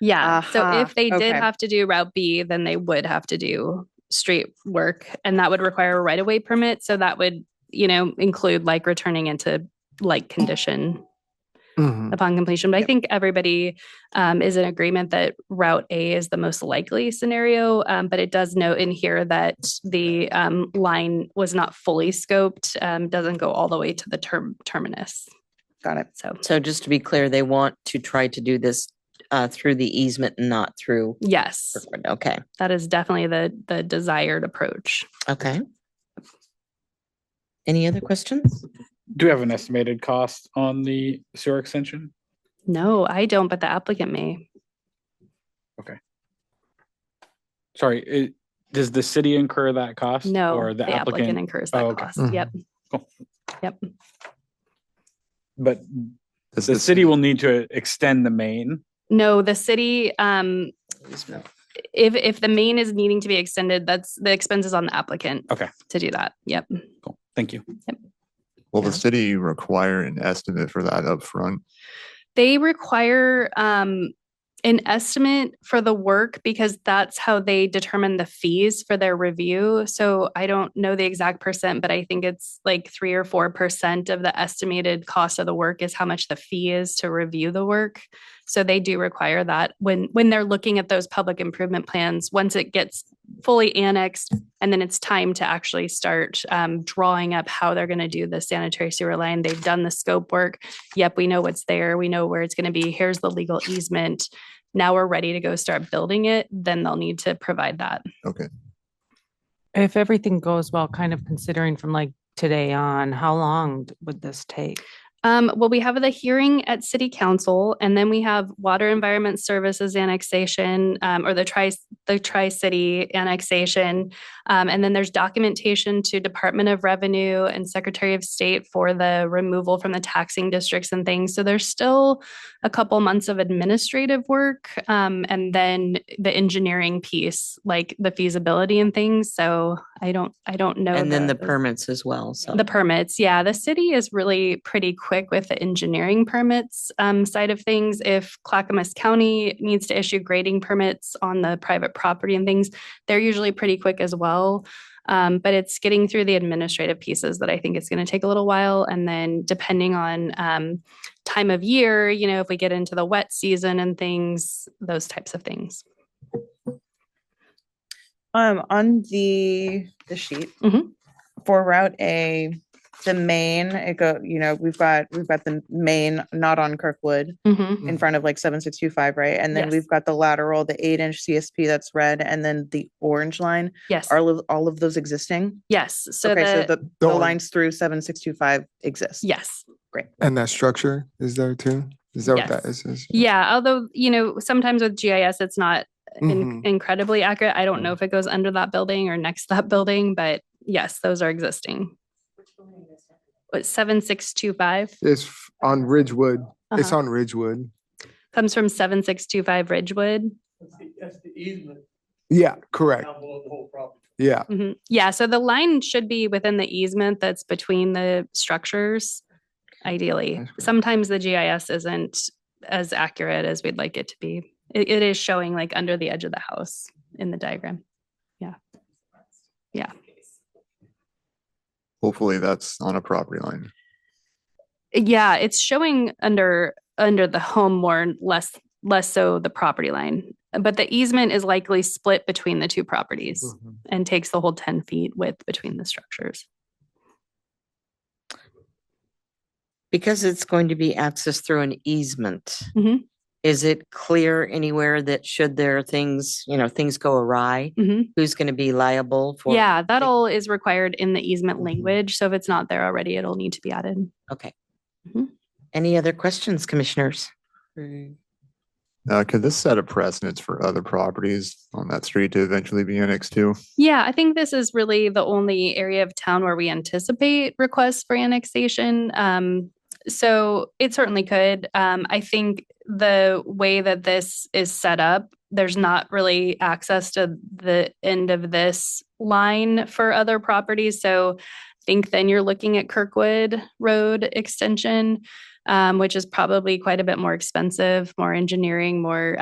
Yeah. So Aha, if they did okay. have to do Route B, then they would have to do street work and that would require a right of way permit. So that would, you know, include like returning into like condition Mm-hmm. Mhm. upon completion. But I think everybody um, is in agreement that Route A is the most likely scenario. Um, but it does note in here that the um, line was not fully scoped, um, doesn't go all the way to the term terminus. Got it. So So just to be clear, they want to try to do this uh, through the easement, not through. yes, Okay, that is definitely the the desired approach. okay. Any other questions? Oh, Do we have an estimated cost on the sewer extension? No, I don't, but the applicant may. Sorry, it, does the city incur that cost? No, Or the applicant, incurs Oh, that okay. cost. Yep. Cool. Yep. but Does the this- city will need to extend the main. No, the city, um, if, if the main is needing to be extended, that's the expenses on the applicant. Okay. To do that. Yep. Cool, thank you. Will Yeah. the city require an estimate for that upfront? They require, um, an estimate for the work because that's how they determine the fees for their review. So I don't know the exact percent, but I think it's like three or four percent of the estimated cost of the work is how much the fee is to review the work. So they do require that when when they're looking at those public improvement plans, once it gets fully annexed and then it's time to actually start um, drawing up how they're going to do the sanitary sewer line. They've done the scope work. Yep, we know what's there. We know where it's going to be. Here's the legal easement. Now we're ready to go start building it. Then they'll need to provide that. If everything goes well, kind of considering from like today on, how long d- would this take? Um, well, we have the hearing at city council and then we have water environment services annexation, um, or the tri, the tri-city annexation. Um, and then there's documentation to Department of Revenue and Secretary of State for the removal from the taxing districts and things. So there's still a couple months of administrative work. Um, and then the engineering piece, like the feasibility and things. So I don't, I don't know. And then the permit. permits as well, so. Oh. The permits, yeah, the city is really pretty quick with the engineering permits um, side of things. If Clackamas County needs to issue grading permits on the private property and things, they're usually pretty quick as well. Um, but it's getting through the administrative pieces that I think it's going to take a little while. And then depending on um, time of year, you know, if we get into the wet season and things, those types of things. Um, on the, the sheet. Mhm. For Route A, the main, it go, you know, we've got, we've got the main, not on Kirkwood. Mhm. in front of like seven, six, two, five, right? And then Yes. we've got the lateral, the eight inch CSP that's red, and then the orange line. Yes, Are lo- all of those existing? yes. So Okay, so the, the, the orange- lines through seven, six, two, five exist. yes. And that structure is there too? Is that what that Yes. is? is- Yeah, although, you know, sometimes with GIS, it's not in- Mhm. incredibly accurate. I don't know if it goes under that building or next to that building, but yes, those are existing. What, seven, six, two, five? It's f- on Ridgewood. It's Uh-huh. on Ridgewood. Comes from seven, six, two, five Ridgewood. That's the easement Yeah, correct. down below the whole property. Yeah. Mhm. Yeah, so the line should be within the easement that's between the structures, ideally. That's great. Sometimes the GIS isn't as accurate as we'd like it to be. It, it is showing like under the edge of the house in the diagram. Hopefully that's on a property line. Yeah, it's showing under under the home more and less less so the property line. But the easement is likely split between the two properties Mm-hmm. and takes the whole 10 feet width between the structures. Because it's going to be accessed through an easement. Mhm. Is it clear anywhere that should there things, you know, things go awry, Mhm. who's going to be liable for? Yeah, that all is required in the easement language. So if it's not there already, it'll need to be added. Okay. Mhm. Any other questions, commissioners? Uh, could this set a precedence for other properties on that street to eventually be annexed to? Yeah, I think this is really the only area of town where we anticipate requests for annexation. Um, so it certainly could. Um, I think the way that this is set up, there's not really access to the end of this line for other properties. So I think then you're looking at Kirkwood Road Extension. um, which is probably quite a bit more expensive, more engineering, more